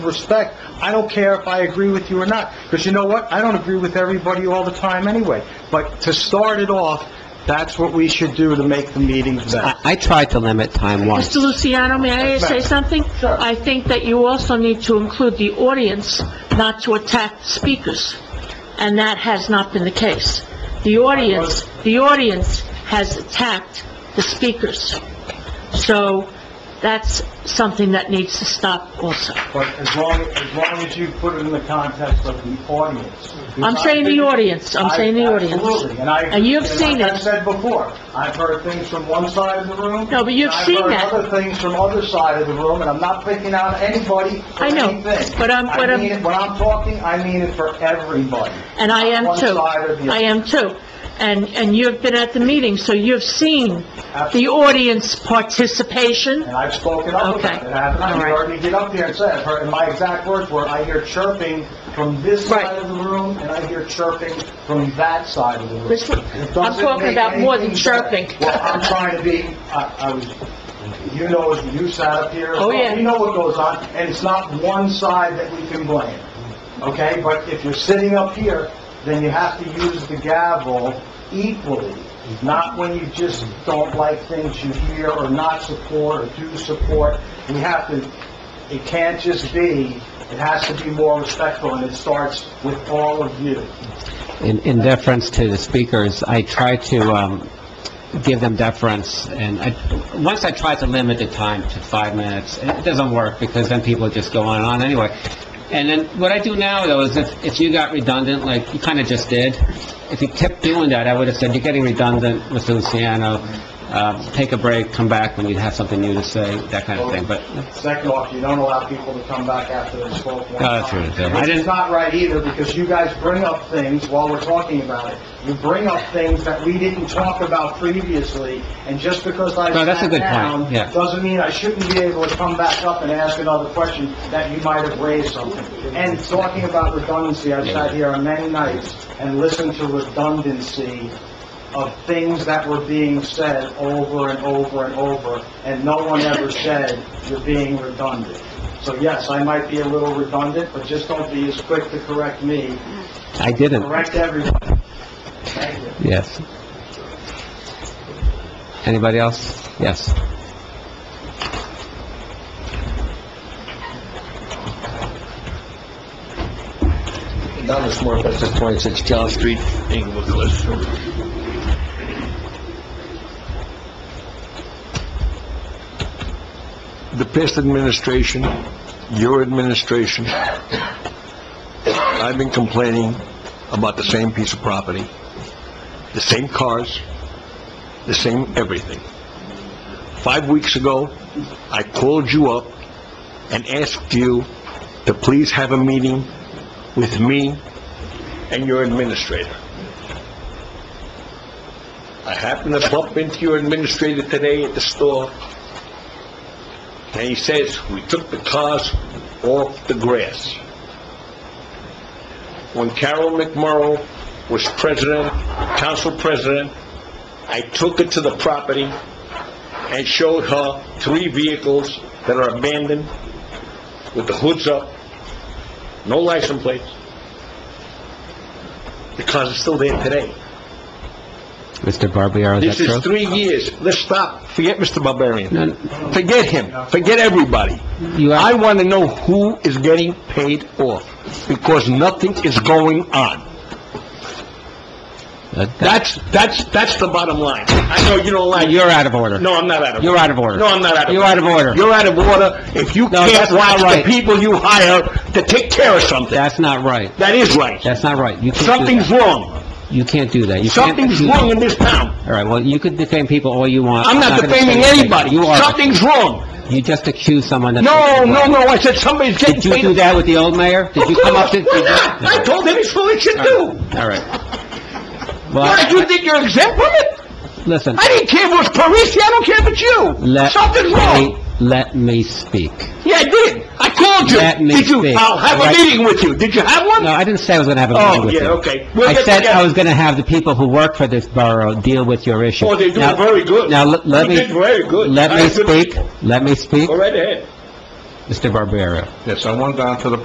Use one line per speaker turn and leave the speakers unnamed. respect, I don't care if I agree with you or not, because you know what? I don't agree with everybody all the time anyway. But to start it off, that's what we should do to make the meetings better.
I I tried to limit time once.
Mr. Luciano, may I say something?
Sure.
I think that you also need to include the audience, not to attack speakers, and that has not been the case. The audience, the audience has attacked the speakers, so that's something that needs to stop also.
But as long, as long as you put it in the context of the audience.
I'm saying the audience, I'm saying the
I-
audience.
Absolutely, and I...
And you've seen
like I
it.
said before, I've heard things from one side of the room...
No, but you've
and
seen that.
I've heard other things from other side of the room, and I'm not picking out anybody for
I know,
anything.
but I'm- but
I
I'm-
mean it- when I'm talking, I mean it for everybody.
And I am
One
too.
side or the other.
I am too. And, and you've been at the meeting, so you've seen the audience participation.
And I've spoken up
Okay.
about it, haven't I?
All
You
right.
heard me get up there and say, I've heard, and my exact words were, I hear chirping from this
Right.
side of the room, and I hear chirping from that side of the room.
Listen,
It
I'm
doesn't
talking
make
about more than
anything better.
chirping.
Well, I'm trying to be, I, I was, you know, as you sat up here. as
Oh,
well,
yeah.
You know what goes on, and it's not one side that we can blame, okay? But if you're sitting up here, then you have to use the gavel equally, not when you just don't like things you hear or not support or do support. We have to, it can't just be, it has to be more respectful, and it starts with all of you.
In in deference to the speakers, I tried to um, give them deference, and I, once I tried to limit the time to five minutes, and it doesn't work, because then people just go on and on anyway. And then, what I do now, though, is if if you got redundant, like you kind of just did, if you kept doing that, I would have said, "You're getting redundant, Mr. Luciano, Um, take a break, come back when you have something new to say," that kind of thing, but...
Second off, you don't allow people to come back after they spoke one
No, that's
time.
right, yeah. I
Which is
didn't-
not right either, because you guys bring up things while we're talking about it. You bring up things that we didn't talk about previously, and just because I
No, that's a
sat
good point,
down...
yeah.
Doesn't mean I shouldn't be able to come back up and ask another question that you might have raised something. And talking about redundancy, I've sat here on many nights and listened to redundancy of things that were being said over and over and over, and no one ever said, "You're being redundant." So yes, I might be a little redundant, but just don't be as quick to correct me.
I didn't.
Correct everyone. Thank you.
Yes. Anybody else? Yes.
Donna's more that's just 26 John Street, Englewood Cliffs. The past administration, your administration, I've been complaining about the same piece of property, the same cars, the same everything. Five weeks ago, I called you up and asked you to please have a meeting with me and your administrator. I happened to bump into your administrator today at the store, and he says, "We took the cars off the grass." When Carol McMorro was president, council president, I took her to the property and showed her three vehicles that are abandoned with the hoods up, no license plates. The cars are still there today.
Mr. Barbiero, is
This
that true?
is three years. Let's stop. Forget Mr. Barbarian.
No,
Forget him. Forget everybody.
You
I
are, Uh,
want to know who is getting paid off, because nothing is going on.
that- that-
That's, that's, that's the bottom line. I know you don't like...
you're out of order.
No, I'm not out of...
You're out of order.
No, I'm not out of...
You're out of order.
You're out of order if you
No,
can't
that's not
watch the
right.
people you hire to take care of something.
That's not right.
That is right.
That's not right. You can't do
Something's
that.
wrong.
You can't do that. You can't-
Something's wrong in this town.
All right, well, you could defame people all you want.
I'm not
gonna
defaming
say-
anybody.
You are.
Something's wrong.
You just accused someone that...
No, no, no, I said somebody's getting
Did you
paid.
do that with the old mayor? Did you come up to...
Why not? I told him it's what he should do.
All right.
Why,
Well,
do you think you're exempt from it?
listen,
I didn't care if it was Parisi, I don't care if it's you.
let me,
Something's wrong.
let me speak.
Yeah, I did. I called you.
Let me
Did you?
speak.
I'll have
Right.
a meeting with you. Did you have one?
No, I didn't say I was going to have a meeting
Oh,
with you.
yeah, okay. We'll
I
get
said I
together.
was going to have the people who work for this borough deal with your issue.
Oh, they're doing
Now-
very good.
Now, let let
You
me...
did very good.
Let
I
me
agree.
speak, let me speak.
Go right ahead.
Mr. Barbieri.
Yes, I went down to the